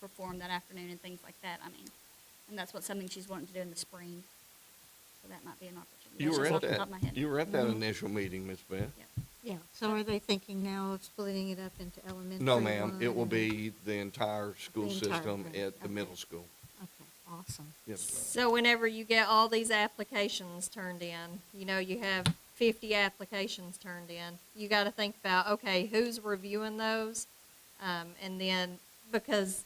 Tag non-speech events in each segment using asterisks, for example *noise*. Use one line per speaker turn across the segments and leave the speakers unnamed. perform that afternoon and things like that. I mean, and that's what something she's wanting to do in the spring. So that might be an opportunity.
You
That's
were
just
at
off the top
that,
of my head. Mm-hmm.
you were at that
Mhm.
initial meeting, Ms. Beth.
Yeah.
Yeah, so are they thinking now of splitting it up into elementary?
No, ma'am,
one
it will
and-
be the entire school
The entire
system
thing,
at the
okay.
middle school.
Okay, awesome.
Yes,
So whenever you get all these applications turned in, you know, you have fifty applications turned in, you gotta think about, okay, who's reviewing those? Um, and then, because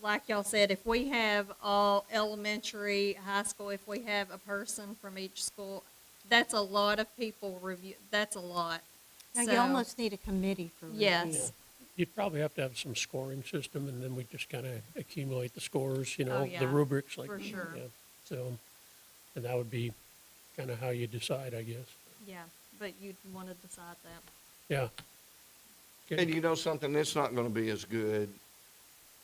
like y'all said, if we have all elementary, high school, if we have a person from each school, that's a lot of people review, that's a lot.
Now, you
So-
almost need a committee for review.
Yes.
You'd probably have to have some scoring system, and then we just kind of accumulate the scores, you
Oh,
know,
yeah,
the rubrics like.
for sure.
yeah. So, and that would be kind of how you decide, I guess.
Yeah, but you'd wanna decide that.
Yeah.
And
Okay.
you know something, it's not gonna be as good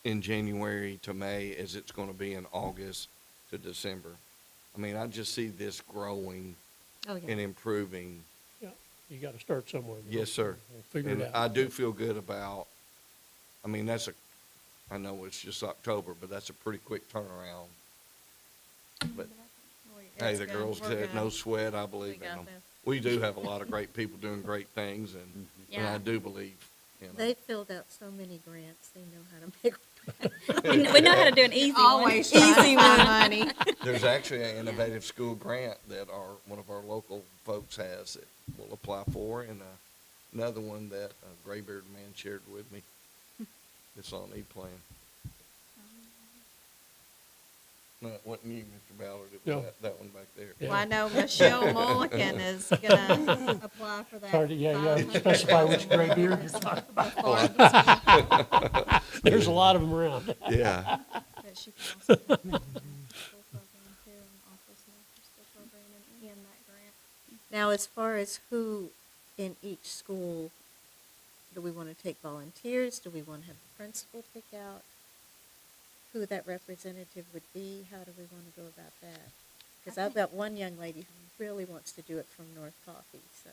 in January to May as it's gonna be in August to December. I mean, I just see this growing
Oh,
and
yeah.
improving.
Yeah. You got to start somewhere. you know.
Yes, sir.
We'll Figure
And
it
I
out.
do feel good about, I mean, that's a, I know it's just October, but that's a pretty quick turnaround. But, hey,
It's
the
good.
girls
We're
did,
good.
no sweat, I
We
believe in
got
them.
this.
We do have a lot of great people doing great things, and, and I
Yeah.
do believe, you know.
They *laughs* filled out so many grants, they know how to make.
*laughs* We kn- we know how to do an easy
Always
one.
trying to find money.
There's actually an innovative school grant that our, one of our local folks has that we'll apply for, and uh, another one that a graybeard man shared with me. It's on E-Plan. No, it wasn't you, Mr. Ballard, it
No.
was that, that one back there.
*laughs*
Yeah.
Well, I know Michelle
*laughs*
Mulliken is gonna apply for that.
Hard to- yeah, you gotta
500
specify which gray
*laughs*
beard you're
thousand
talking
dollars
Oh, *laughs*
before the-
There's a lot of them around. *laughs*
Yeah,
that she
*laughs*
can also do that school program too, and also some after-school program and- and that grant.
Now, as far as who in each school, do we want to take volunteers? Do we want to have the principal pick out who that representative would be? How do we want to go about that? Because
I
I've
think-
got one young lady who really wants to do it from North Coffee, so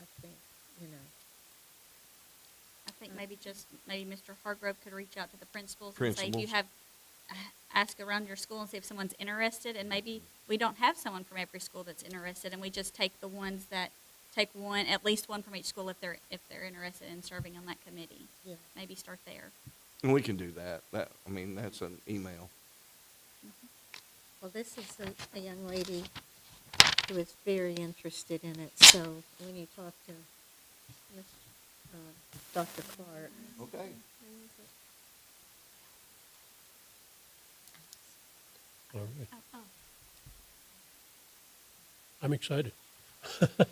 I think, you know.
I think maybe just, maybe Mr. Hargrove could reach out to the principals and say, if you
Principals.
have, uh, ask around your school and see if someone's interested, and maybe we don't have someone from every school that's interested, and we just take the ones that, take one, at least one from each school if they're, if they're interested in serving on that committee.
Yeah.
Maybe start there.
and we can do that. That, I mean, that's an email.
Well, this is a, a young lady who is very interested in it, so when you talk to Miss, uh, Dr. Clark,
Okay.
All right. I'm excited.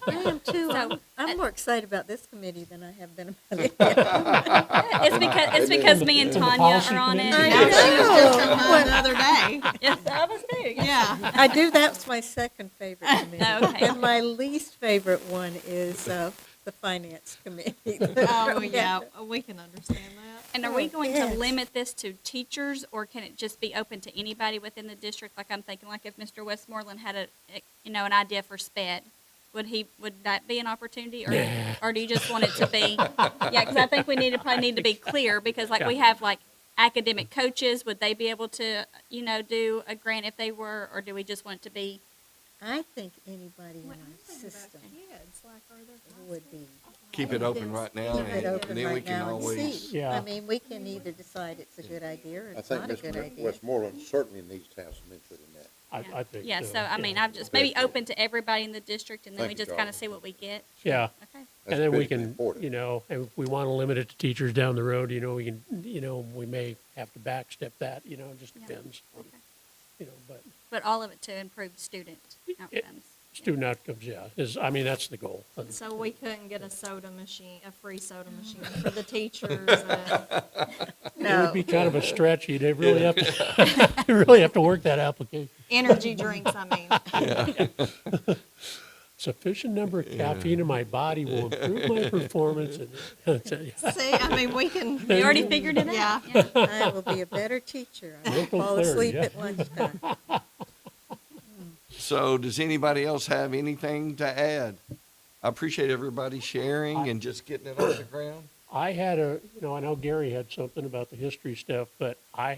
I am too. I'm, I'm more excited about this committee than I have been
*laughs*
about it. I
It's because, it's because me and
It's in the
Tanya
policy
are on
committee.
it.
I
Yeah, she was just
know.
on the other day.
*laughs*
Yes, I was too. yeah.
Yeah.
I do, that's my second favorite committee.
Okay.
And my least favorite one is, uh, the finance
*laughs*
committee.
Oh, yeah, we can understand that.
*laughs* And are we
Oh,
going to
yes.
limit this to teachers, or can it just be open to anybody within the district? Like I'm thinking, like if Mr. Westmoreland had a, a- you know, an idea for sped, would he, would that be an opportunity, or, or do you just want it to
*laughs*
be? Yeah, because I think we need to probably need to be clear, because like we
Yeah.
have like academic coaches, would they be able to, you know, do a grant if they were, or do we just want it to be?
I think anybody in our system
Kids, like, are there?
would be.
Keep it open right now,
Keep it
and
open
and then we
right
can
now and
always,
see.
Yeah.
I mean, we can either decide it's a good idea or
I
it's
think
not a
Ms.
good idea.
Westmoreland certainly needs to have some input in that.
I,
Yeah.
I think.
Yeah,
uh,
so I mean,
yeah.
I've just, maybe open to everybody in the district, and then
Thank
we
you,
just kind
Darla.
of see what we get.
Yeah.
Okay.
That's
And then we
critically
can,
important.
you know, and if we want to limit it to teachers down the road, you know, we can, you know, we may have to backstep that, you know, it just
Yeah.
depends. on, You know, but
But all of it to improve student outcomes.
student outcomes, yeah, is, I mean, that's the goal.
*laughs*
And
So we couldn't get a soda machine, a free soda machine for the teachers.
*laughs*
uh,
It would be kind of a stretch, you'd really have to, *laughs* you really have to work that application.
Energy drinks, I mean.
Sufficient number of caffeine in my body will improve
*laughs*
my performance and, *laughs* yeah.
See, I mean, we can.
We already figured it out.
Yeah.
yeah.
I will be a better teacher. I will
Mental
fall asleep
clarity,
at lunchtime.
so does anybody else have anything to add? I appreciate everybody sharing and just getting it off the ground.
I had a, you know, I know Gary had something about the history stuff, but I